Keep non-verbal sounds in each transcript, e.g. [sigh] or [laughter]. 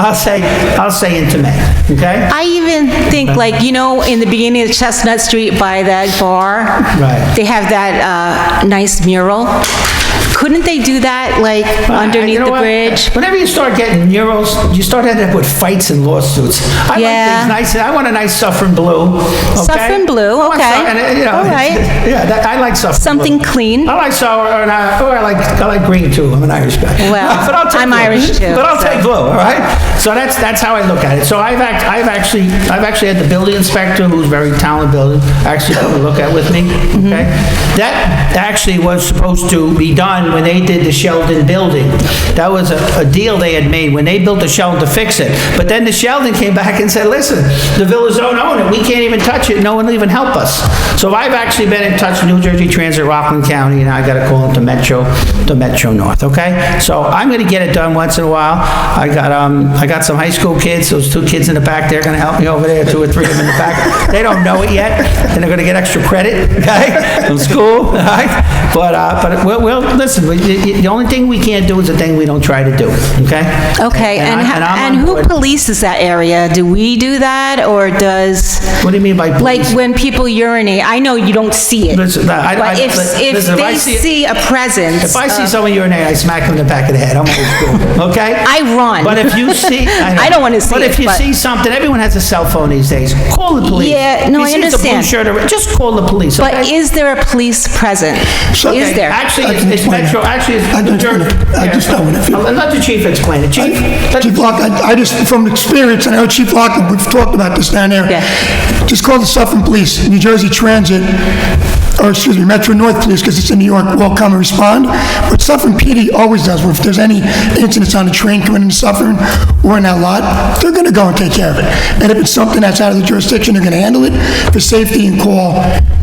I'll say, I'll say intimate, okay? I even think like, you know, in the beginning of Chestnut Street by that bar? Right. They have that, uh, nice mural. Couldn't they do that, like, You underneath know what? the bridge? Whenever you start getting murals, you start ending up with fights and lawsuits. I like Yeah. things nice, I want a nice suffering blue, okay? Suffering blue, I want okay. su- and, uh, you know, All right. [laughs] Yeah, that- I like suffering blue. Something clean. I like sour, and I, or I like, I like green too, I'm an Irish guy. Well, [laughs] But I'll take I'm blue. Irish too, But I'll so. take blue, all right? So that's, that's how I look at it. So I've act, I've actually, I've actually had the building inspector, who's very talented builder, actually come and look at with me, Mm-hmm. okay? That actually was supposed to be done when they did the Sheldon building. That was a, a deal they had made, when they built the Sheldon to fix it. But then the Sheldon came back and said, listen, the villas don't own it, we can't even touch it, no one will even help us. So I've actually been in touch with New Jersey Transit, Rockland County, and I gotta call them to Metro, to Metro North, okay? So I'm gonna get it done once in a while. I got, um, I got some high school kids, those two kids in the back, they're gonna help me over there, two or three of them in the back. They don't know it yet, and they're gonna get extra credit, okay, from school, [laughs] all right? But, uh, but, well, well, listen, we- the, the only thing we can't do is the thing we don't try to do, okay? Okay, and, I- ho- I'm and on who board. polices that area? Do we do that, or does, What do you mean by like, police? when people urinate, I know you don't see it. Listen, no, I- I- But if, if listen, if I they see- see a presence, If I see of- someone urinate, I smack them in the back of the head. I'm old [laughs] school, okay? I run. But if [laughs] you see, I, know. I don't wanna see But if it, you but- see something, everyone has a cell phone these days. Call the police. Yeah, no, If I you see it's a blue understand. shirt or- just call the police. But okay? is there a police present? Is Okay, there? Actually, I it's can it's explain Metro. it. Actually, I it's can New Jersey. explain it. I Yeah. just know it if you- I'll Let the chief explain it. Chief. let- Chief Lockton, I I just, from experience, I know Chief Lockton, we've talked about this down there. Yeah. Just call the Suffolk Police, New Jersey Transit, or excuse me, Metro North Police, because it's in New York, will come and respond. But Suffolk PD always does, where if there's any incidents on a train coming into Suffolk or in that lot, they're going to go and take care of it. And if it's something that's out of the jurisdiction, they're going to handle it for safety and call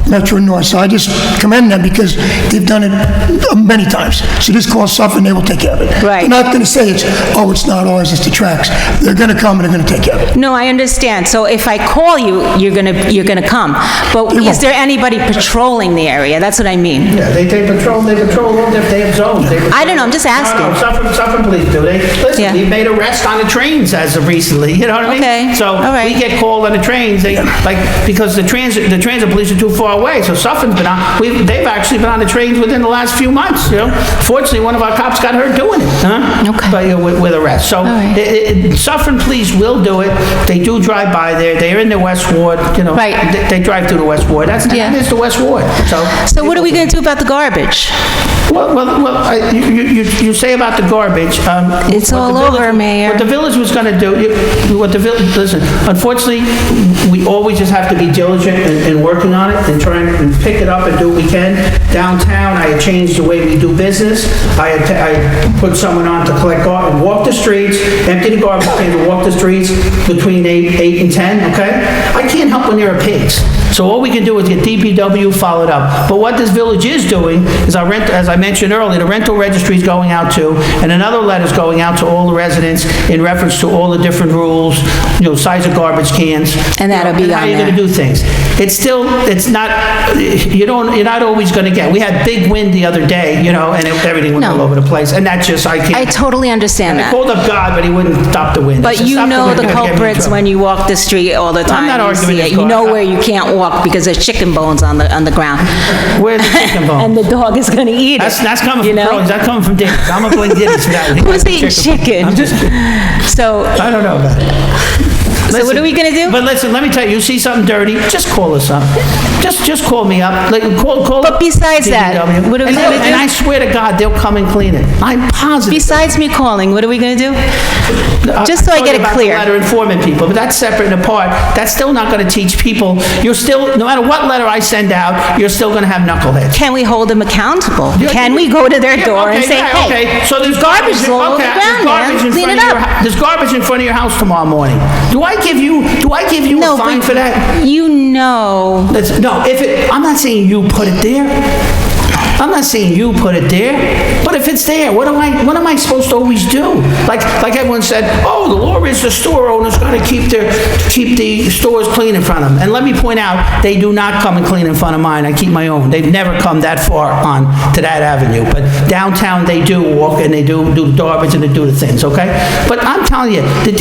Metro North. So I just commend them because they've done it uh, many times. So just call Suffolk, and they will take care of it. Right. They're not not going to say it's, oh, it's not ours, it's the tracks. They're going to come and they're going to take care of it. No, I understand. So if I call you, you're gonna, you're gonna come. But is won't. there anybody patrolling the area? That's what I mean. Yeah, They, they patrol, they patrol all their damn zones. They I don't know, I'm just asking. No, no, Suffolk, Suffolk police do, they, listen, Yeah. we made arrests on the trains as of recently, you know what I mean? Okay, So, all right. we get called on the trains, they, like, because the transit, the transit police are too far away, so Suffolk's been on, we, they've actually been on the trains within the last few months, you know? Fortunately, one of our cops got hurt doing it, huh? Okay. But, uh, with, with arrest, so, right. it- it- Suffolk police will do it, they do drive by there, they're in the West Ward, you know? Right. They, they drive through the West Ward, that's, Yeah. that is the West Ward, so. So what are we gonna do about the garbage? Well, well, well, I- you, you, you you say about the garbage, um... It's what all the village- over, Mayor. What the village was gonna do, you- what the village, listen, unfortunately, we always just have to be diligent in, in working on it and trying and pick it up and do what we can. Downtown, I had changed the way we do business. I had, ta- I put someone on to collect garbage, walk the streets, empty the garbage can, and walk the streets between eight, eight and 10, okay? I can't help when there are pigs. So all we can do is get DPW followed up. But what this village is doing is our rent, as I mentioned earlier, the rental registry is going out to, and another letter's going out to all the residents in reference to all the different rules, you know, size of garbage cans. And that'll be you know, and on How you're there. gonna do things. It's still, it's not, you don't, you're not always gonna get, we had big wind the other day, you know, and it- everything went all No. over the place, and that's just, I I can't, totally understand I that. called up God, but he wouldn't stop the wind. I But said, you "Stop know wind, the you're gonna get me in culprits trouble." when you walk the street all the time. not You arguing see this it. You cause. know where you can't walk because there's chicken bones on the, on the ground. Where's the chicken bone? [laughs] And the dog is gonna eat it. Oh. That's, that's coming you from know? Crohn's. That's coming from Diddy's. I'm gonna blame [laughs] Diddy's for that. Who's eating chicken? I'm just, So, I don't know about it. so what Listen, are we gonna do? But listen, let me tell you, you see something dirty, just call us up. Just, just call me up. Like, call, call. But besides that, DPW. what are we And they'll- gonna do? And I swear to God, they'll come and clean it. I'm positive. Uh, Besides me calling, what are we gonna do? just so I told get you it about the clear. Letter informing people, but that's separate and apart. That's still not gonna teach people, you're still, no matter what letter I send out, you're still gonna have knuckleheads. Can we hold them accountable? Yeah, Can we go to their door and say, yeah, hey? okay. so there's garbage is all over okay, the there's ground, man. garbage in Clean front it of your up." hou- There's garbage in front of your house tomorrow morning. Do I give you, do I give you No, a fine but for that? You know, That's- no, if it, I'm not saying you put it there. I'm not saying you put it there, but if it's there, what am I, what am I supposed to always do? Like, like everyone said, oh, the law is the store owner's gotta keep their, keep the stores clean in front of them. And let me point out, they do not come and clean in front of mine, I keep my own. They've never come that far on to that avenue, but downtown, they do walk and they do, do garbage and they do the things, okay? But I'm telling you, the